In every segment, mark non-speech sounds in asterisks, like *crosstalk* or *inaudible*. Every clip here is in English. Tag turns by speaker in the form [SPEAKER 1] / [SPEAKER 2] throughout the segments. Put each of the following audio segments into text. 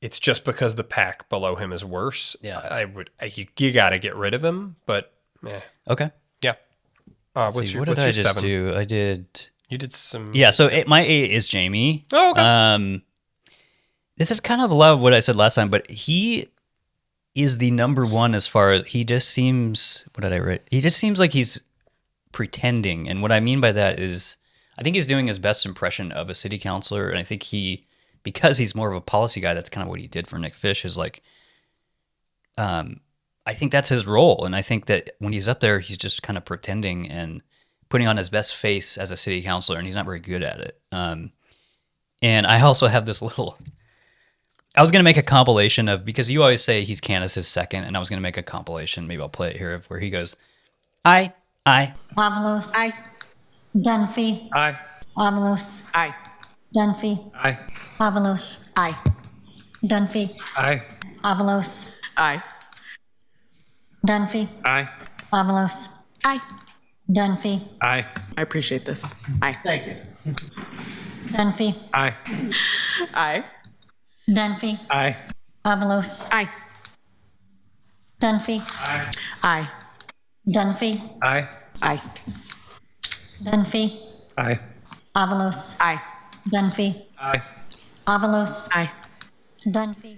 [SPEAKER 1] it's just because the pack below him is worse.
[SPEAKER 2] Yeah.
[SPEAKER 1] I, I would. I, you, you got to get rid of him, but eh,
[SPEAKER 2] Okay.
[SPEAKER 1] yeah. Uh, what's
[SPEAKER 2] See,
[SPEAKER 1] your,
[SPEAKER 2] what
[SPEAKER 1] what's
[SPEAKER 2] did I
[SPEAKER 1] your
[SPEAKER 2] just
[SPEAKER 1] seven?
[SPEAKER 2] do? I did.
[SPEAKER 1] You did some.
[SPEAKER 2] Yeah. So it, my eight is Jamie.
[SPEAKER 1] Oh, okay.
[SPEAKER 2] Um, this is kind of a lot of what I said last time, but he is the number one as far as he just seems. What did I write? He just seems like he's pretending, and what I mean by that is, I think he's doing his best impression of a city councilor, and I think he, because he's more of a policy guy, that's kind of what he did for Nick Fish is like, um, I think that's his role, and I think that when he's up there, he's just kind of pretending and putting on his best face as a city councilor, and he's not very good at it. Um, and I also have this little. I was gonna make a compilation of because you always say he's Candace's second, and I was gonna make a compilation. Maybe I'll play it here of where he goes, I, I,
[SPEAKER 3] Wabalus.
[SPEAKER 4] Aye.
[SPEAKER 3] Dunphy.
[SPEAKER 5] Aye.
[SPEAKER 3] Wabalus.
[SPEAKER 4] Aye.
[SPEAKER 3] Dunphy.
[SPEAKER 5] Aye.
[SPEAKER 3] Wabalus.
[SPEAKER 4] Aye.
[SPEAKER 3] Dunphy.
[SPEAKER 5] Aye.
[SPEAKER 3] Wabalus.
[SPEAKER 4] Aye.
[SPEAKER 3] Dunphy.
[SPEAKER 5] Aye.
[SPEAKER 3] Wabalus.
[SPEAKER 4] Aye.
[SPEAKER 3] Dunphy.
[SPEAKER 5] Aye.
[SPEAKER 4] I appreciate this. Aye.
[SPEAKER 5] Thank you.
[SPEAKER 3] Dunphy.
[SPEAKER 5] Aye.
[SPEAKER 4] Aye.
[SPEAKER 3] Dunphy.
[SPEAKER 5] Aye.
[SPEAKER 3] Wabalus.
[SPEAKER 4] Aye.
[SPEAKER 3] Dunphy.
[SPEAKER 5] Aye.
[SPEAKER 4] Aye.
[SPEAKER 3] Dunphy.
[SPEAKER 5] Aye.
[SPEAKER 4] Aye.
[SPEAKER 3] Dunphy.
[SPEAKER 5] Aye.
[SPEAKER 3] Wabalus.
[SPEAKER 4] Aye.
[SPEAKER 3] Dunphy.
[SPEAKER 5] Aye.
[SPEAKER 3] Wabalus.
[SPEAKER 4] Aye.
[SPEAKER 3] Dunphy.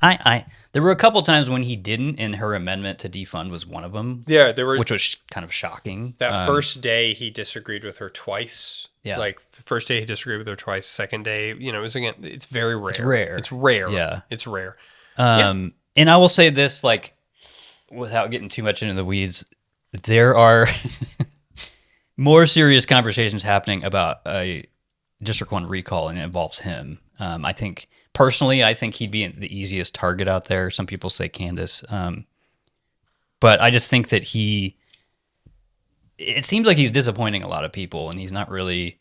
[SPEAKER 2] I, I. There were a couple times when he didn't, and her amendment to defund was one of them,
[SPEAKER 1] Yeah, there were
[SPEAKER 2] which was sh- kind of shocking.
[SPEAKER 1] that
[SPEAKER 2] Um,
[SPEAKER 1] first day he disagreed with her twice.
[SPEAKER 2] Yeah.
[SPEAKER 1] Like f- first day he disagreed with her twice. Second day, you know, it was again. It's very rare. It's
[SPEAKER 2] rare.
[SPEAKER 1] It's rare.
[SPEAKER 2] Yeah.
[SPEAKER 1] It's rare.
[SPEAKER 2] Um, and I will say this, like, without getting too much into the weeds, there are *laughs* more serious conversations happening about a District One recall, and it involves him. Um, I think personally, I think he'd be the easiest target out there. Some people say Candace, um, but I just think that he. It seems like he's disappointing a lot of people, and he's not really.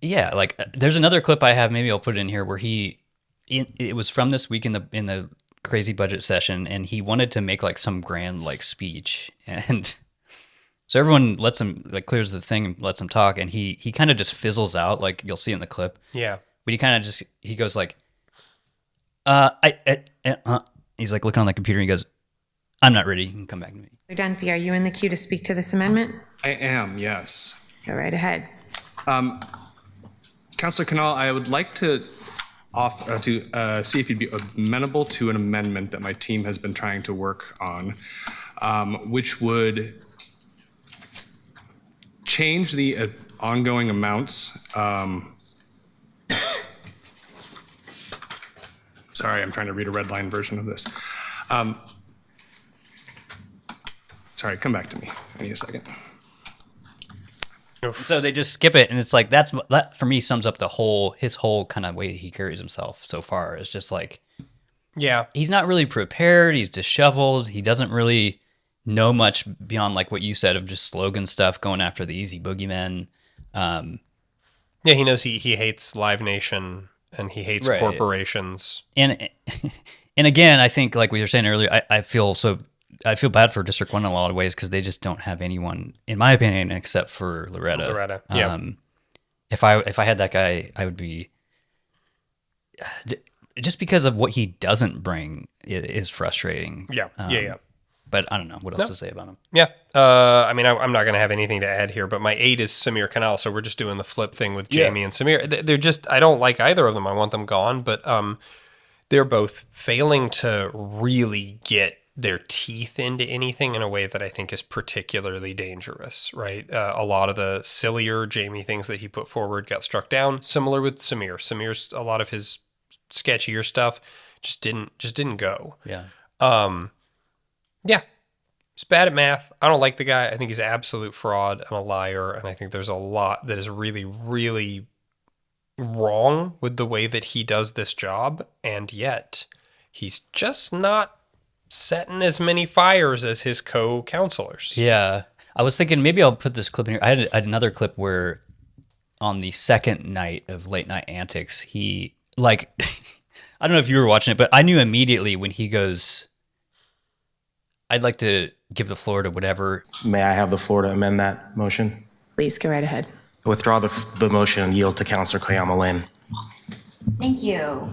[SPEAKER 2] Yeah, like uh, there's another clip I have. Maybe I'll put it in here where he it, it was from this week in the in the crazy budget session and he wanted to make like some grand like speech *laughs* and so everyone lets him like clears the thing and lets him talk and he he kind of just fizzles out like you'll see in the clip
[SPEAKER 1] Yeah.
[SPEAKER 2] but he kind of just he goes like uh i, I uh, uh, he's like looking on the computer and he goes i'm not ready you can come back to me
[SPEAKER 6] Dunphy, are you in the queue to speak to this amendment?
[SPEAKER 5] I am, yes.
[SPEAKER 6] Go right ahead.
[SPEAKER 5] Councillor Canal, I would like to off, uh, to uh, see if you'd be amenable to an amendment that my team has been trying to work on, um, which would change the uh, ongoing amounts. Um, *coughs* sorry, I'm trying to read a red line version of this. Um, sorry, come back to me. I need a second.
[SPEAKER 2] so they just skip it and it's like that's that for me sums up the whole his whole kind of way he carries himself so far it's just like
[SPEAKER 1] Yeah.
[SPEAKER 2] he's not really prepared. He's disheveled. He doesn't really know much beyond like what you said of just slogan stuff going after the easy boogeyman. Um,
[SPEAKER 1] Yeah. He knows he he hates Live Nation and he hates
[SPEAKER 2] Right.
[SPEAKER 1] corporations.
[SPEAKER 2] and *laughs* and again, I think like we were saying earlier, I, I feel so I feel bad for District One in a lot of ways because they just don't have anyone, in my opinion, except for Loretta.
[SPEAKER 1] Loretta, yeah.
[SPEAKER 2] Um, if I if I had that guy, I would be *sighs* d- just because of what he doesn't bring i- is frustrating.
[SPEAKER 1] Yeah.
[SPEAKER 2] Um,
[SPEAKER 1] yeah. Yeah.
[SPEAKER 2] But I don't know what else to say about him.
[SPEAKER 1] Yeah. Uh, I mean, I, I'm not going to have anything to add here, but my eight is Samir Canal, so we're just doing the flip thing with Jamie and Samir. They- They're just, I don't like either of them. I want them gone, but um, they're both failing to really get their teeth into anything in a way that I think is particularly dangerous, right? Uh, a lot of the sillier Jamie things that he put forward got struck down. Similar with Samir. Samir's a lot of his sketchier stuff just didn't just didn't go.
[SPEAKER 2] Yeah.
[SPEAKER 1] Um, yeah, he's bad at math. I don't like the guy. I think he's an absolute fraud and a liar. And I think there's a lot that is really, really wrong with the way that he does this job. And yet, he's just not setting as many fires as his co-counselors.
[SPEAKER 2] Yeah. I was thinking maybe I'll put this clip in here. I had, I had another clip where on the second night of late night antics, he like *laughs* I don't know if you were watching it, but I knew immediately when he goes I'd like to give the floor to whatever.
[SPEAKER 7] May I have the floor to amend that motion?
[SPEAKER 6] Please go right ahead.
[SPEAKER 7] Withdraw the, the motion and yield to Councillor Koyama Lane.
[SPEAKER 8] Thank you.